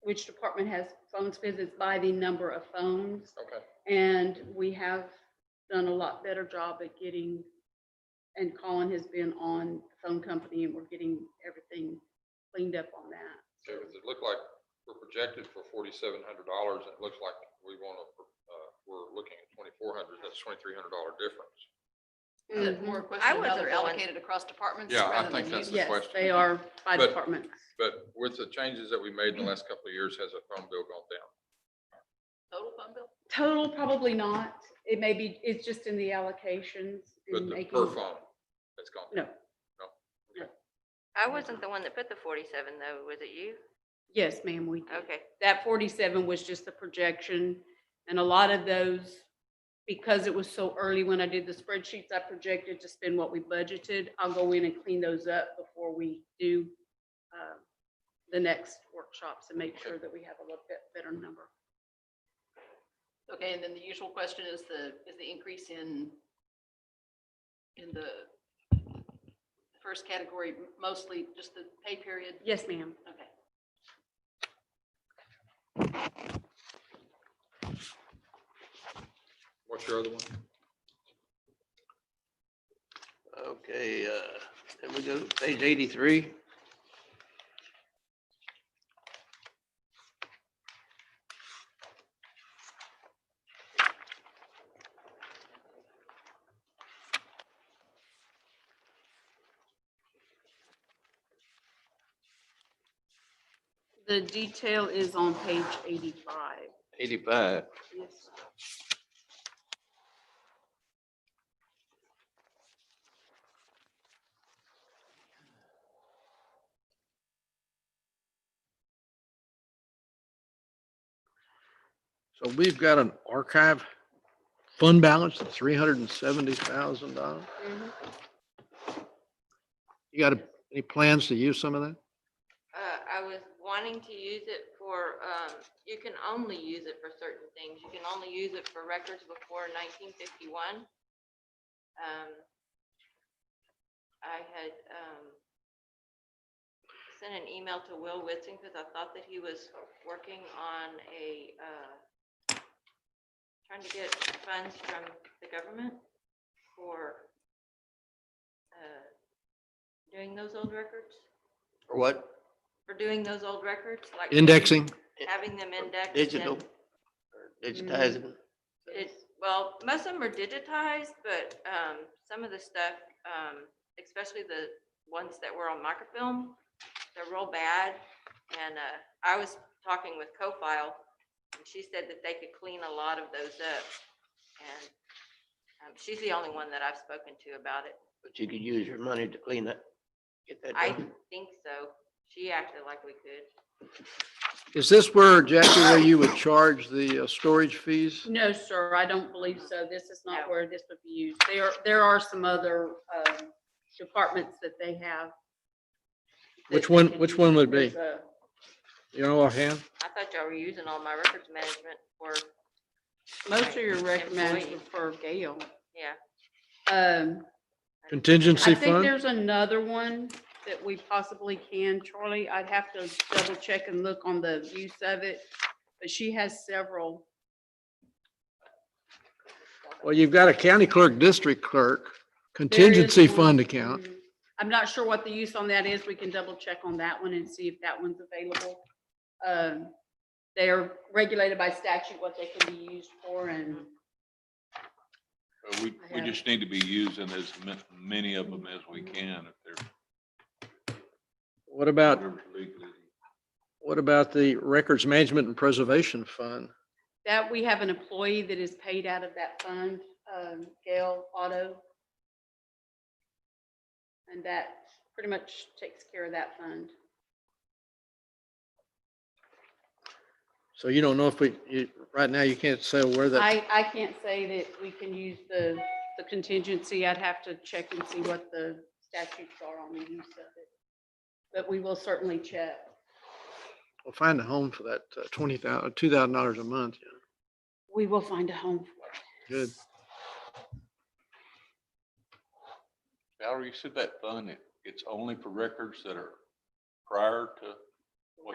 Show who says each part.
Speaker 1: which department has phones visits by the number of phones.
Speaker 2: Okay,
Speaker 1: And we have done a lot better job at getting, and Colin has been on the phone company and we're getting everything cleaned up on that.
Speaker 2: so it looked like we're projected for forty-seven hundred dollars, and it looks like we want to, uh, we're looking at twenty-four hundred, that's twenty-three hundred dollar difference.
Speaker 3: Is it
Speaker 1: Mhm.
Speaker 3: More a
Speaker 4: I
Speaker 3: question
Speaker 4: would
Speaker 3: about
Speaker 4: have
Speaker 3: they're
Speaker 4: gone-
Speaker 3: allocated across departments.
Speaker 2: Yeah, I
Speaker 3: rather
Speaker 2: think
Speaker 3: than
Speaker 2: that's the
Speaker 3: using-
Speaker 1: Yes,
Speaker 2: question.
Speaker 1: they are by
Speaker 2: But-
Speaker 1: department.
Speaker 2: But with the changes that we made in the last couple of years, has a phone bill gone down?
Speaker 3: Total phone bill?
Speaker 1: Total, probably not. It may be, it's just in the allocations.
Speaker 2: But
Speaker 1: and
Speaker 2: the
Speaker 1: making-
Speaker 2: per phone, it's gone. down.
Speaker 1: No,
Speaker 4: I wasn't the one that put the forty-seven though, was it you?
Speaker 1: yes, ma'am, we did.
Speaker 4: Okay,
Speaker 1: that forty-seven was just the projection. And a lot of those, because it was so early when I did the spreadsheets, I projected to spend what we budgeted. I'll go in and clean those up before we do uh, the next workshops and make sure that we have a little bit better number.
Speaker 3: Okay, and then the usual question is the, is the increase in, in the first category mostly just the pay period?
Speaker 1: Yes, ma'am.
Speaker 3: Okay.
Speaker 2: What's your other one?
Speaker 5: Okay, uh, then we go to page eighty-three.
Speaker 1: The detail is on page eighty-five.
Speaker 5: Eighty-five.
Speaker 1: Yes.
Speaker 5: So we've got an archive fund balance of three hundred and seventy thousand dollars.
Speaker 1: Mhm.
Speaker 5: You got a- any plans to use some of that?
Speaker 4: uh, I was wanting to use it for, um, you can only use it for certain things. You can only use it for records before nineteen fifty-one. Um, I had, um, sent an email to Will Whitson because I thought that he was working on a, uh, trying to get funds from the government for, uh, doing those old records
Speaker 5: Or what?
Speaker 4: for doing those old records, like.
Speaker 5: Indexing,
Speaker 4: Having them indexed.
Speaker 5: digital,
Speaker 4: and
Speaker 5: or digitizing.
Speaker 4: It's, well, most of them are digitized, but, um, some of the stuff, um, especially the ones that were on microfilm, they're real bad. And, uh, I was talking with Co-File and she said that they could clean a lot of those up. And, um, she's the only one that I've spoken to about it.
Speaker 5: But you could use your money to clean that, get that
Speaker 4: I
Speaker 5: done.
Speaker 4: think so. She acted like we could.
Speaker 5: Is this where, Jackie, where you would charge the uh, storage fees?
Speaker 1: No, sir, I don't believe so. This is not
Speaker 4: No.
Speaker 1: where this would be used. There, there are some other um, departments that they have. that
Speaker 5: Which
Speaker 1: they
Speaker 5: one-
Speaker 1: can
Speaker 5: which one would
Speaker 1: use uh,
Speaker 5: be?
Speaker 1: as a-
Speaker 5: You know offhand?
Speaker 4: I thought y'all were using all my records management for,
Speaker 1: Most of your
Speaker 4: Employee.
Speaker 1: recommendations for Gail.
Speaker 4: yeah.
Speaker 1: Um, I
Speaker 5: Contingency
Speaker 1: think
Speaker 5: fund?
Speaker 1: there's another one that we possibly can, Charlie. I'd have to double check and look on the use of it, but she has several.
Speaker 5: Well, you've got a county clerk, district clerk,
Speaker 1: There is
Speaker 5: contingency
Speaker 1: one-
Speaker 5: fund account.
Speaker 1: Mhm. I'm not sure what the use on that is. We can double check on that one and see if that one's available. Um, They are regulated by statute what they can be used for and
Speaker 6: Uh, We,
Speaker 1: I
Speaker 6: we
Speaker 1: have-
Speaker 6: just need to be using as ma- many of them as we can if they're.
Speaker 5: What about,
Speaker 6: whatever legally.
Speaker 5: what about the records management and preservation fund?
Speaker 1: that we have an employee that is paid out of that fund, um, Gail Auto. And that pretty much takes care of that fund.
Speaker 5: So you don't know if we, you, right now, you can't say where that,
Speaker 1: I, I can't say that we can use the, the contingency. I'd have to check and see what the statutes are on the use of it. But we will certainly check.
Speaker 5: we'll find a home for that uh, twenty thousand, two thousand dollars a month. you know.
Speaker 1: We will find a home for it.
Speaker 5: Good.
Speaker 6: Valerie, you said that fund, it, it's only for records that are prior to